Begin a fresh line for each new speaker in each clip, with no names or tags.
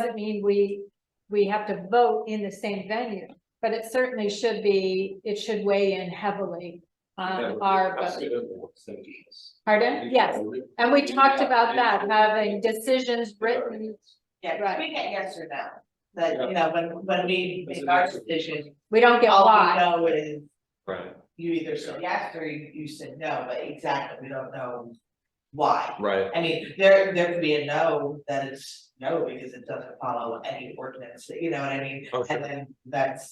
doesn't mean we, we have to vote in the same venue. But it certainly should be, it should weigh in heavily
Yeah,
on our vote.
absolutely, what sentence.
Pardon? Yes, and we talked about that, having decisions written,
Yeah, 'cause we get yes or no, but you know, when when we
That's
make
an
our
excellent
decision,
we don't get
all
Oh,
we
why.
know is
Right,
you either said yes or you you said no, but exactly, we don't know why.
right,
I mean, there there could be a no that is no because it doesn't follow any ordinance, you know what I mean?
Oh, sure.
And then that's,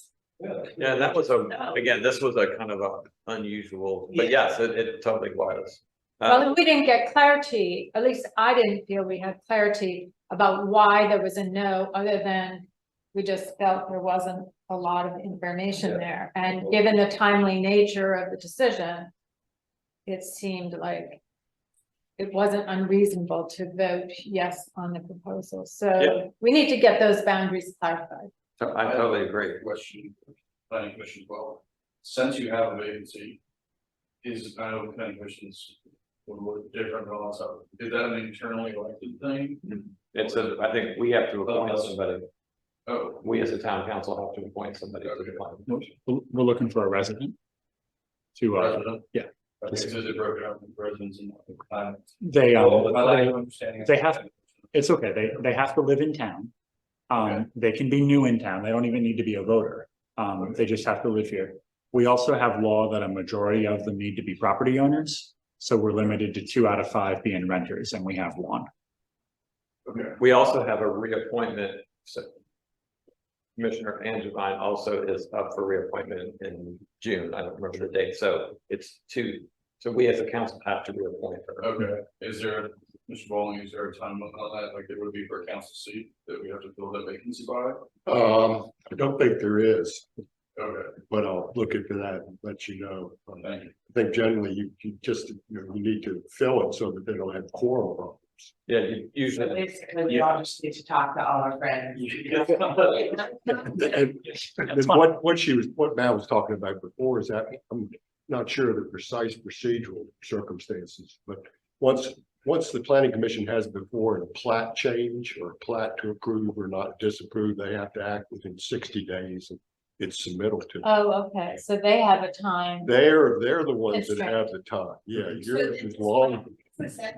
Yeah, that was a,
No.
again, this was a kind of a unusual, but
Yeah.
yes, it, it totally was.
Well,
Uh,
and we didn't get clarity, at least I didn't feel we had clarity about why there was a no, other than we just felt there wasn't a lot of information
Yeah.
there. And given the timely nature of the decision, it seemed like it wasn't unreasonable to vote yes on the proposal.
Yeah.
So we need to get those boundaries clarified.
so I totally agree.
question, planning commission, as well, since you have a vacancy. Is, I know planning commissions would look different than us, is that an internally elected thing?
It's a, I think we have to appoint somebody.
Oh,
We as a town council have to appoint somebody to the planning commission.
We're we're looking for a resident. To, uh,
resident?
yeah.
Okay, so is it broken up into residents and? uh,
they, um,
I like your understanding. of
they have-
that.
it's okay, they, they have to live in town. Um, they can be new in town, they don't even need to be a voter, um, they just have to live here. We also have law that a majority of them need to be property owners, so we're limited to two out of five being renters, and we have one.
Okay,
We also have a reappointment, so. Commissioner Angivine also is up for reappointment in June. I don't remember the date, so it's two. So we as a council have to reappoint her.
okay, is there, Mr. Bowling, is there a time limit on that, like it would be for a council seat that we have to fill that vacancy by?
Um, I don't think there is,
Okay,
but I'll look into that and let you know. Um, I
thank you.
think generally you, you just, you know, you need to fill it so that they don't have quorum problems.
Yeah, you
but
usually,
basically, we all just need to talk to all our friends.
And and what, what she was, what Matt was talking about before is that I'm not sure of the precise procedural circumstances, but once, once the planning commission has before a plat change or a plat to approve or not disapprove, they have to act within sixty days of its submittal to.
Oh, okay, so they have a time.
They're, they're the ones that
Constraint.
have the time. Yeah,
So
yours
it's
is long.
consent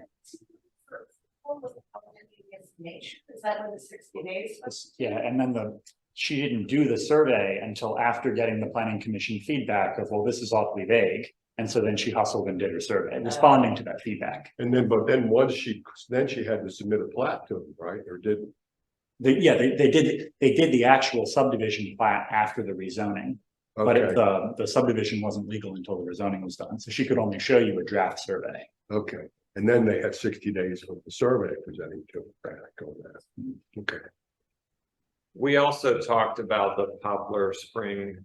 for all of the public information. Is that what the sixty days? was?
This- Yeah, and then the, she didn't do the survey until after getting the planning commission feedback of, well, this is awfully vague. And so then she hustled and did her survey, responding to that feedback.
And then, but then once she, then she had to submit a plat to them, right? Or didn't?
They, yeah, they, they did, they did the actual subdivision plat after the rezoning. But
Okay,
it- the, the subdivision wasn't legal until the rezoning was done, so she could only show you a draft survey.
Okay. And then they had sixty days of the survey presenting to them back on that. Okay.
we also talked about the Poplar Spring.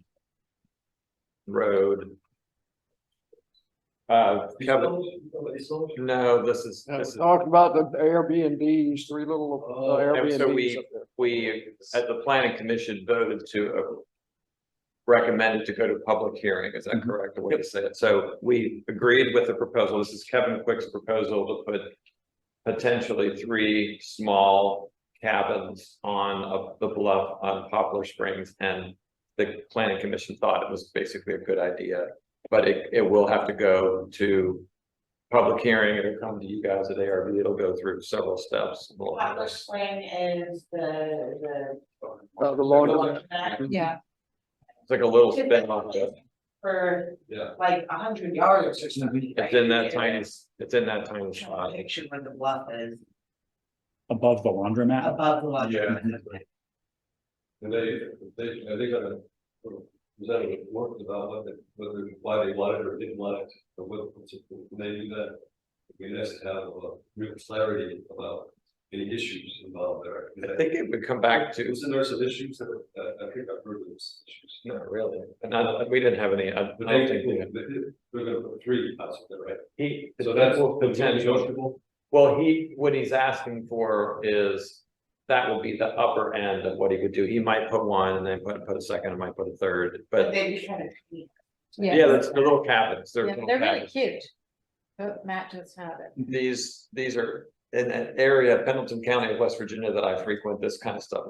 Road. Uh, Kevin, no, this is, this is,
Talked about the Airbnbs, three little uh,
and so
Airbnbs
we-
up there.
we, at the planning commission voted to. uh, Recommended to go to public hearing, is that
Mhm.
correct, the way to say it? So we agreed with the proposal, this is Kevin Quick's proposal to put. Potentially three small cabins on a- the bluff on Poplar Springs and. The planning commission thought it was basically a good idea, but it, it will have to go to. Public hearing, it'll come to you guys at ARB, ittle go through several steps. along
Poplar
this.
Spring is the,
Uh, the
the.
lawn,
Yeah,
It's like a little spin off.
For
Yeah. Mm-hmm.
like a hundred yards or something.
It's in that tiny, it's in that tiny spot.
Picture where the bluff is
Above the laundromat,
above the lawn.
Yeah. And they, they, I think, uh, was that a report about what they, whether, why they wanted or didn't want it, or what, when they do that? We just have a real clarity about any issues involved there.
I think it would come back to,
Isn't there some issues that, uh, I think I've heard of those issues?
not really, and I, we didn't have any, I I
But they,
don't think we had.
they're gonna put three pots there, right?
He,
So that's
potential,
potential.
well, he, what he's asking for is, that will be the upper end of what he would do, he might put one, and then put, put a second, and might put a third,
But
but.
they be kind of. clean.
yeah.
Yeah, that's the little cabins, they're
Yeah,
little
They're really
cabins.
cute. But Matt just had it.
These, these are in an area, Pendleton County of West Virginia that I frequent, this kind of stuff